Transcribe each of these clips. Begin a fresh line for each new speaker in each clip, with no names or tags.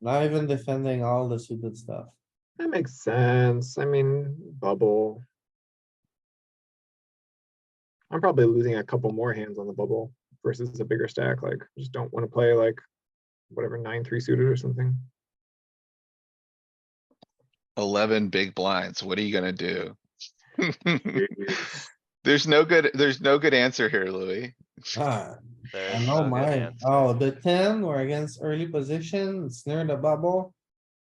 Not even defending all the stupid stuff.
That makes sense. I mean, bubble. I'm probably losing a couple more hands on the bubble versus a bigger stack, like, just don't wanna play like whatever, nine, three suited or something.
Eleven big blinds, what are you gonna do? Mm-hmm.
Jeez.
There's no good, there's no good answer here, Louis.
Ah, I
There's
know
no good
mine.
hands.
Oh, the ten, we're against early position, it's near the bubble.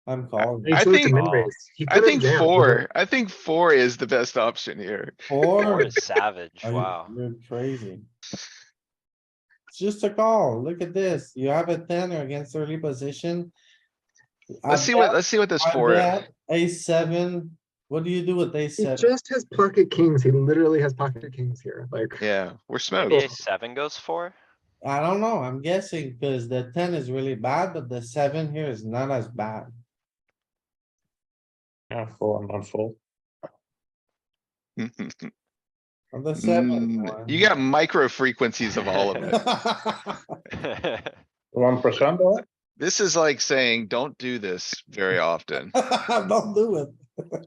I'm calling.
He
I
should've
think-
some in-raise. He
I
could've
think
jammed.
four, I think four is the best option here.
Four
Four.
is savage,
Are you-
wow.
You're crazy. It's just a call. Look at this. You have a ten or against early position. I
Let's see what,
bet-
let's see what this
I
four is.
bet A seven, what do you do with a
He
seven?
just has pocket kings. He literally has pocket kings here, like.
Yeah, we're
Maybe
smoked.
a seven goes for?
I don't know. I'm guessing because the ten is really bad, but the seven here is not as bad.
Yeah, four and one four.
On the seven.
Mm-hmm. Mm, You got micro frequencies of all of it.
got.
One percent or
This is like saying, don't do this very often.
Don't do it.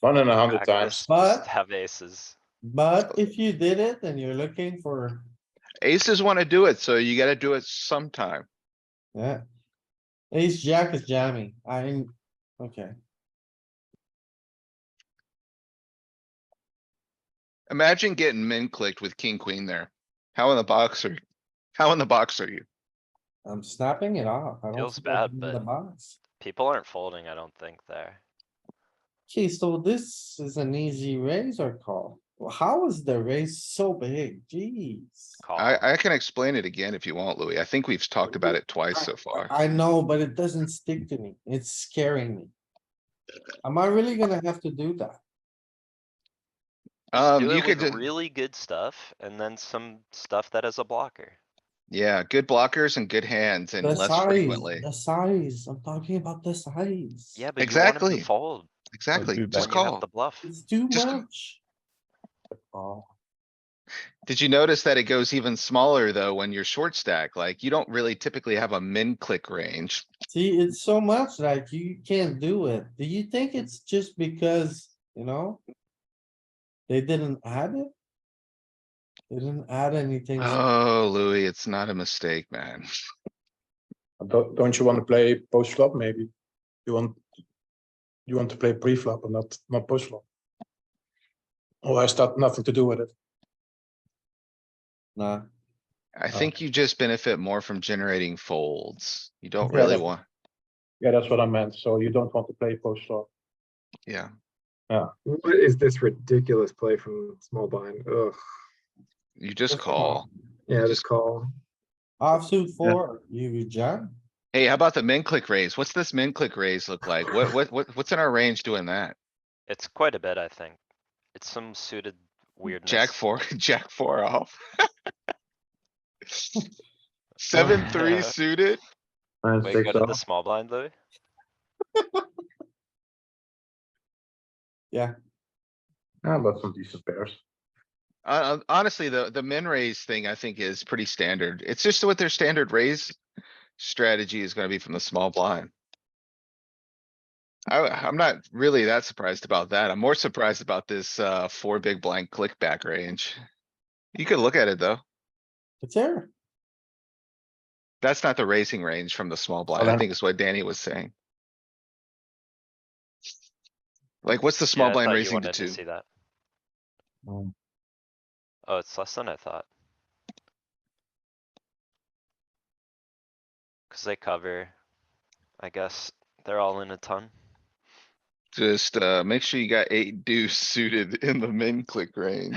one and a hundred
Practice,
times.
But-
just Have aces.
But if you did it and you're looking for,
Aces wanna do it, so you gotta do it sometime.
yeah. Ace jack is jamming. I'm, okay.
Imagine getting min clicked with king, queen there. How in the box are, how in the box are you?
I'm snapping it off. I don't
Feels
think I
bad,
can win the
but-
box.
People aren't folding, I don't think there.
Okay, so this is an easy raise or call. Well, How is the raise so big? Jeez.
Call.
I, I can explain it again if you want, Louis. I think we've talked about it twice so far.
I know, but it doesn't stick to me. It's scaring me. Am I really gonna have to do that?
Just
Um,
do
you
it
could,
with
ju-
really good stuff and then some stuff that is a blocker.
yeah, good blockers and good hands and
The
less
size,
frequently.
the size, I'm talking about the size.
Yeah, but you want 'em
Exactly.
to fold
Exactly,
do
just
better.
when you have
call.
the bluff.
It's too
Just-
much.
Oh,
Did you notice that it goes even smaller though when you're short stack? Like you don't really typically have a min click range.
See, it's so much like you can't do it. Do you think it's just because, you know? They didn't add it? They didn't add anything.
Oh, Louis, it's not a mistake, man.
don't, don't you want to play post flop? Maybe you want you want to play pre flop and not not post flop. Or has that nothing to do with it?
Nah,
I
Oh.
think you just benefit more from generating folds. You don't
Yeah,
really
that-
want,
Yeah, that's what I meant. So you don't want to play post flop.
yeah.
What is this ridiculous play from small blind? Ugh.
You just
Just call.
call.
Yeah,
Just-
just call.
offsuit four, you you jam.
Hey, how about the min click raise? What's this min click raise look like? What, what, what, what's in our range doing that?
It's quite a bit, I think. It's some suited weirdness.
Jack four, jack four off. Seven, three suited?
Wait, go to the small blind, Louis?
Yeah, Ah, but some decent pairs.
Uh, honestly, the, the min raise thing I think is pretty standard. It's just what their standard raise strategy is gonna be from the small blind. I, I'm not really that surprised about that. I'm more surprised about this, uh, four big blind click back range. You could look at it though.
It's there.
That's not the raising range from the small blind, I
Okay.
think is what Danny was saying. Like, what's the small
Yeah, I
blind
thought you
raising to
wanted
two?
See that?
Mm.
Oh, it's less than I thought. Cause they cover, I guess, they're all in a ton.
Just, uh, make sure you got eight deuce suited in the min click range.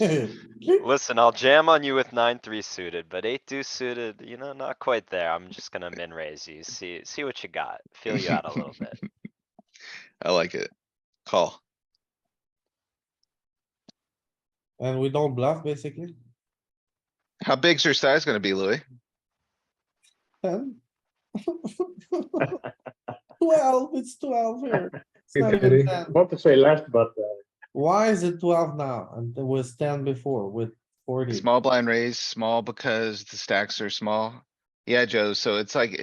Listen, I'll jam on you with nine, three suited, but eight deuce suited, you know, not quite there. I'm just gonna min raise you, see, see what you got, feel you out a little bit.
I like it. Call.
And we don't bluff basically.
How big's your size gonna be, Louis?
Ten. Twelve, it's twelve here. It's
Hey,
not
Daddy.
even 10.
Want to say less, but uh,
Why is it twelve now? And it was ten before with forty.
Small blind raise, small because the stacks are small. Yeah, Joe, so it's like,